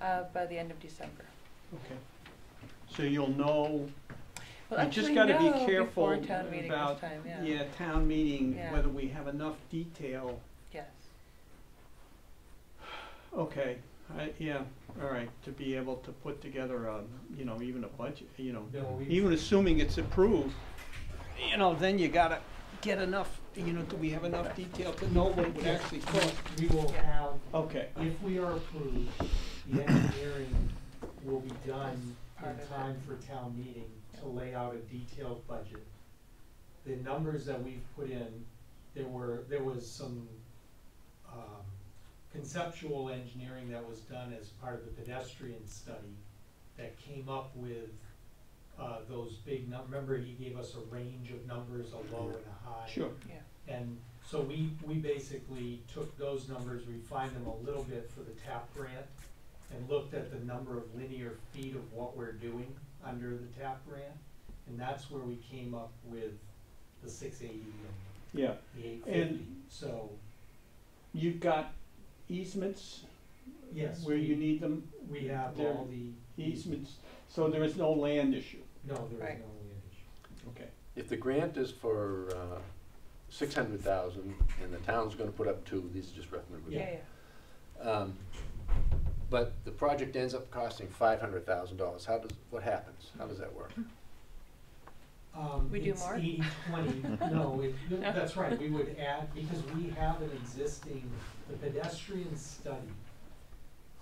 uh, by the end of December. Okay. So you'll know, We'll You just actually gotta be know careful Before town meeting this about- time, yeah, yeah, town meeting, Yeah. whether we have enough detail. yes. Okay, I, yeah, all right, to be able to put together a, you know, even a budget, you know, Yeah, well, we, even assuming it's approved, you know, then you gotta get enough, you know, do we have enough detail to know what it would actually cost? we will have, Okay, if we are approved, the engineering will be done Part in of time for town meeting to lay out a detailed budget. The numbers that we've put in, there were, there was some, um, conceptual engineering that was done as part of the pedestrian study that came up with, uh, those big num, remember he gave us a range of numbers, a low and a high? sure, And so we, we basically took those numbers, refined them a little bit for the TAP grant, and looked at the number of linear feet of what we're doing under the TAP grant, and that's where we came up with the six eighty and yeah. the eight fifty, so, You've got easements yes. where you we- need them, We have there- all the. easements, so there is no land issue, No, there is Right. no land issue. okay? If the grant is for uh, 600,000 and the town's going to put up two, these are just rough numbers. Yeah, Yeah. yeah, Um, But the project ends up costing $500,000. How does, what happens? How does that work? Um, We do it's more? 80 20. no, it, no, that's right, we would add, because we have an existing, the pedestrian study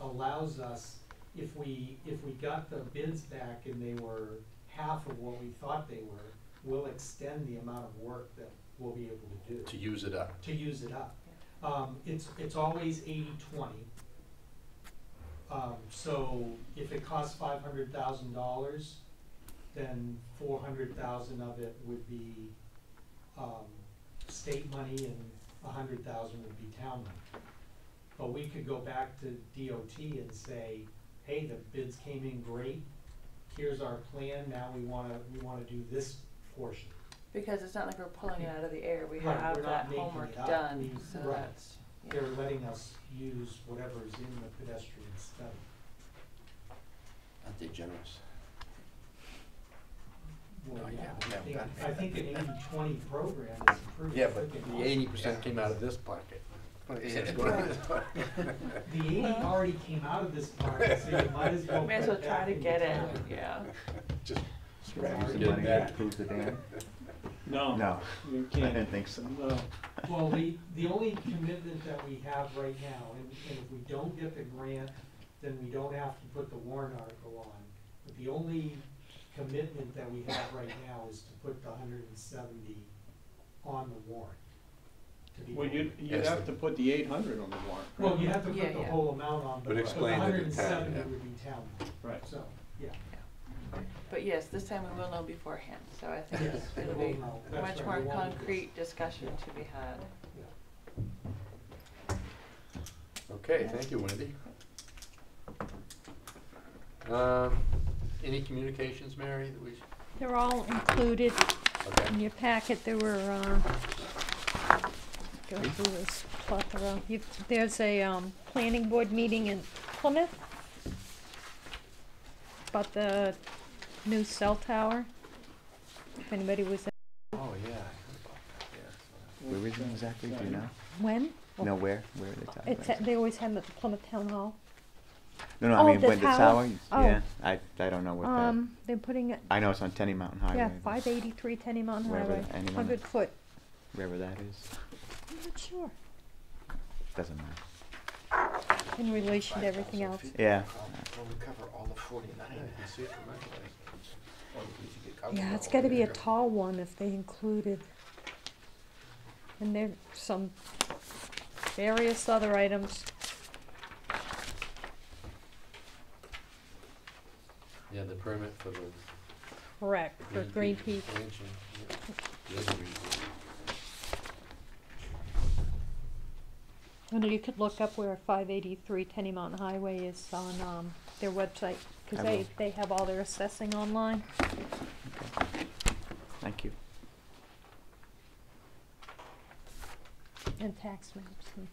allows us, if we, if we got the bids back and they were half of what we thought they were, we'll extend the amount of work that we'll be able to do To use it up? to use it up. Um, it's, it's always eighty twenty. Um, so if it costs five hundred thousand dollars, then four hundred thousand of it would be, um, state money and a hundred thousand would be town money. But we could go back to DOT and say, hey, the bids came in great, here's our plan, now we wanna, we wanna do this portion. because it's not like we're pulling it out of the air, we Right, have we're that not making homework it up. done, We- so right. that's, yeah. They're letting us use whatever is in the pedestrian study. Aren't they generous? Well, Oh, yeah, yeah, I yeah, think, got it. I think an eighty-twenty program is pretty. Yeah, but freaking the eighty percent came out of this pocket. Twenty percent's Yeah. going out of this pocket. awesome. The eighty already came out of this part, so you might as well. May as well put try that to in get it, town. yeah. Just Right. scrap it Some and get money it back. back. prove the dam? No. No, You I can't, didn't think so. no, Well, the, the only commitment that we have right now, and, and if we don't get the grant, then we don't have to put the warrant article on. But the only commitment that we have right now is to put the hundred and seventy on the warrant. to be well, you'd, voted. you'd have to put the eight hundred on the warrant. Well, you have to Yeah, put the yeah. whole amount on, but But the explain it hundred in and town, seventy yeah. would be town, Right, so, yeah. But yes, this time we will know beforehand, so I think Yes, it'll we'll be know. a That's much right, more we won't do this. concrete discussion to be had. Yeah. Okay, thank you, Wendy. Um, any communications, Mary, that we, They're all included okay, in your packet, there were, uh, go through this plethora. You, there's a, um, planning board meeting in Plymouth about the new cell tower. If anybody was, at- oh, yeah. I heard about that. Yeah. Where is it exactly, do you know? when? No, where, where are they talking It's, about? at- they always have it at the Plymouth Town Hall. No, no, oh, I mean, the when the tower. tower, Oh. yeah, I, I don't know what that, Um, they're putting it, I know it's on Tenny Mountain Highway. yeah, but five eighty-three Tenny Mountain Wherever Highway, anyone- hundred foot, Wherever that is, I'm not sure, doesn't matter. in relation to everything else. Yeah, Well, we cover all of forty-nine, you can see it from my place. Or we could get covered Yeah, it's all gotta over be a there. tall one if they included. And there some various other items. Yeah, the permit for the. Correct, for Green Peak. expansion, yeah. The other Green Peak. And you could look up where five eighty-three Tenny Mountain Highway is on, um, their website, cause I they, will. they have all their assessing online. thank you. And tax maps and